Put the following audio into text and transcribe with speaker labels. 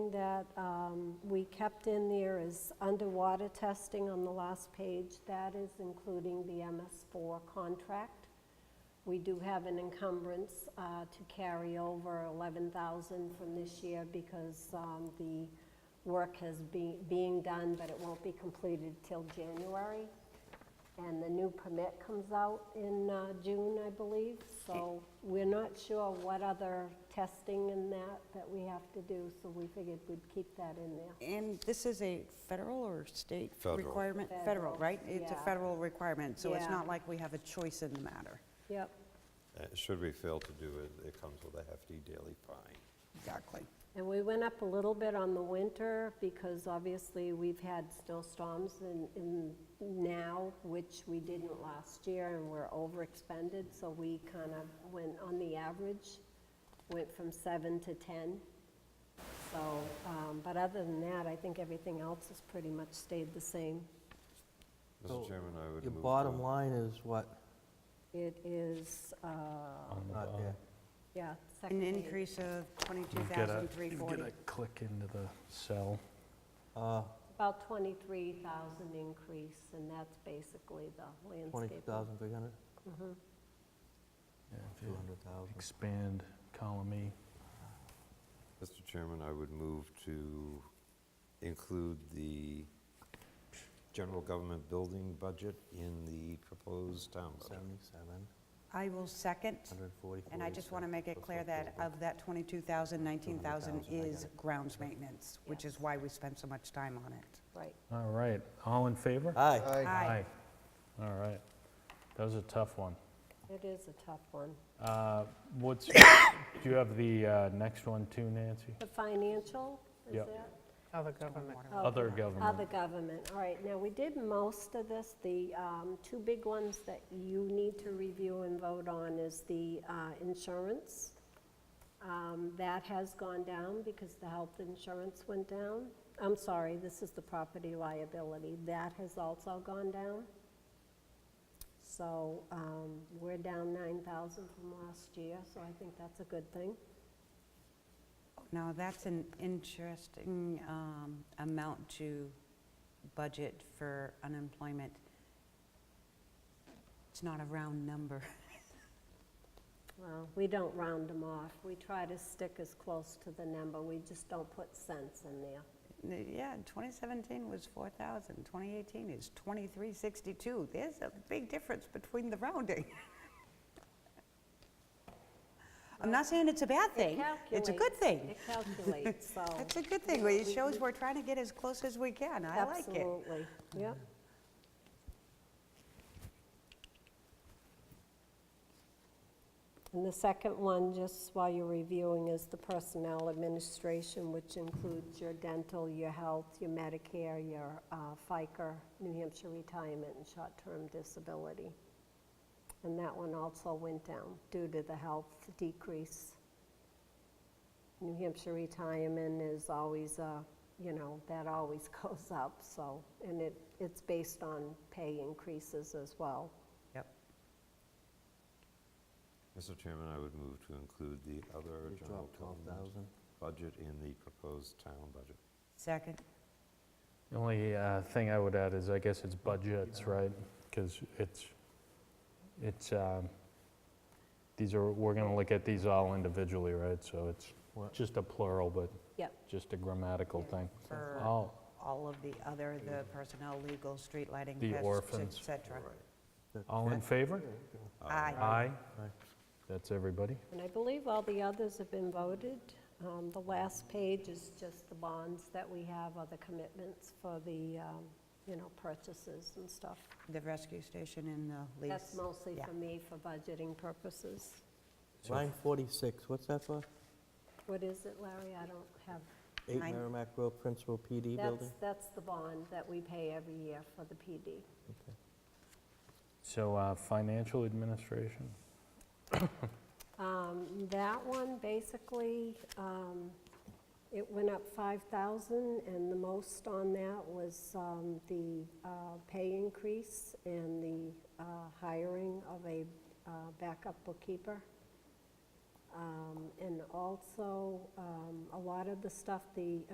Speaker 1: that um, we kept in there is underwater testing on the last page. That is including the MS4 contract. We do have an encumbrance uh, to carry over 11,000 from this year because um, the work has be- being done, but it won't be completed till January. And the new permit comes out in uh, June, I believe, so we're not sure what other testing and that that we have to do, so we figured we'd keep that in there.
Speaker 2: And this is a federal or state
Speaker 3: Federal.
Speaker 2: requirement?
Speaker 1: Federal,
Speaker 2: right? It's a
Speaker 1: yeah.
Speaker 2: federal requirement, so it's
Speaker 1: Yeah.
Speaker 2: not like we have a choice in the matter.
Speaker 1: Yep,
Speaker 3: Uh, Should we fail to do it, it comes with a hefty daily fine.
Speaker 2: Exactly.
Speaker 1: and we went up a little bit on the winter because obviously we've had snowstorms in, in now, which we didn't last year, and we're overexpended, so we kind of went on the average, went from seven to 10. So, um, but other than that, I think everything else has pretty much stayed the same.
Speaker 3: Mr.
Speaker 4: So,
Speaker 3: Chairman, I would
Speaker 4: Your
Speaker 3: move.
Speaker 4: bottom
Speaker 3: to-
Speaker 4: line is what?
Speaker 1: It is, uh,
Speaker 4: Not there.
Speaker 1: yeah,
Speaker 2: An
Speaker 1: second page.
Speaker 2: increase of
Speaker 5: You get a- You
Speaker 2: 22,340.
Speaker 5: get a click into the cell.
Speaker 4: Uh,
Speaker 1: About 23,000 increase, and that's basically the landscape.
Speaker 4: 20,300?
Speaker 5: Yeah, if you
Speaker 4: 200,000.
Speaker 5: Expand column E.
Speaker 3: Mr. Chairman, I would move to include the general government building budget in the proposed town budget.
Speaker 4: 77,
Speaker 2: I will second,
Speaker 4: 140.
Speaker 2: and I just want to make it clear that of that 22,000, 19,000 is grounds maintenance, which is why we spend so much time on it.
Speaker 1: Right.
Speaker 5: All right, all in favor?
Speaker 4: Aye.
Speaker 2: Aye.
Speaker 5: All right. That was a tough one.
Speaker 1: It is a tough one.
Speaker 5: Uh, What's, do you have the uh, next one too, Nancy?
Speaker 1: The financial, is
Speaker 5: Yep.
Speaker 1: that?
Speaker 6: Other government.
Speaker 1: Oh,
Speaker 5: Other
Speaker 1: Other
Speaker 5: government.
Speaker 1: government, all right. Now, we did most of this. The um, two big ones that you need to review and vote on is the uh, insurance. Um, That has gone down because the health insurance went down. I'm sorry, this is the property liability. That has also gone down. So um, we're down 9,000 from last year, so I think that's a good thing.
Speaker 2: Now, that's an interesting um, amount to budget for unemployment. It's not a round number.
Speaker 1: Well, we don't round them off. We try to stick as close to the number. We just don't put cents in there.
Speaker 2: N- Yeah, 2017 was 4,000, 2018 is 2,362. There's a big difference between the rounding. I'm not saying it's a bad
Speaker 1: It
Speaker 2: thing, it's a good
Speaker 1: calculates-
Speaker 2: thing.
Speaker 1: It calculates, so.
Speaker 2: It's a good thing, it shows we're trying to get as close as we can, I like it.
Speaker 1: Absolutely, yep. And the second one, just while you're reviewing, is the personnel administration, which includes your dental, your health, your Medicare, your uh, FICA, New Hampshire retirement, and short-term disability. And that one also went down due to the health decrease. New Hampshire retirement is always, uh, you know, that always goes up, so, and it, it's based on pay increases as well.
Speaker 2: Yep.
Speaker 3: Mr. Chairman, I would move to include the other
Speaker 4: We
Speaker 3: general
Speaker 4: dropped
Speaker 3: government
Speaker 4: 12,000.
Speaker 3: budget in the proposed town budget.
Speaker 2: Second,
Speaker 5: The only uh, thing I would add is, I guess it's budgets, right? Because it's, it's, um, these are, we're going to look at these all individually, right? So it's
Speaker 4: What?
Speaker 5: just a plural, but
Speaker 1: Yep.
Speaker 5: just a grammatical thing.
Speaker 2: for
Speaker 5: All,
Speaker 2: all of the other, the personnel, legal, street lighting,
Speaker 5: The
Speaker 2: pests, et
Speaker 5: orphans.
Speaker 2: cetera.
Speaker 4: The
Speaker 5: all in
Speaker 4: check?
Speaker 5: favor?
Speaker 2: Aye.
Speaker 5: Aye.
Speaker 4: Aye.
Speaker 5: That's everybody.
Speaker 1: And I believe all the others have been voted. Um, The last page is just the bonds that we have, or the commitments for the, um, you know, purchases and stuff.
Speaker 2: The rescue station and the lease.
Speaker 1: That's mostly
Speaker 2: yeah.
Speaker 1: for me for budgeting purposes.
Speaker 5: So-
Speaker 4: Line 46, what's that for?
Speaker 1: What is it, Larry? I don't have,
Speaker 4: 8
Speaker 2: Nine.
Speaker 4: Merrimack Road, Principal
Speaker 2: E
Speaker 4: PD
Speaker 1: that's,
Speaker 4: Building?
Speaker 1: that's the bond that we pay every year for the PD.
Speaker 5: So uh, financial administration?
Speaker 1: Um, That one, basically, um, it went up 5,000, and the most on that was um, the uh, pay increase and the uh, hiring of a uh, backup bookkeeper. Um, And also, um, a lot of the stuff, the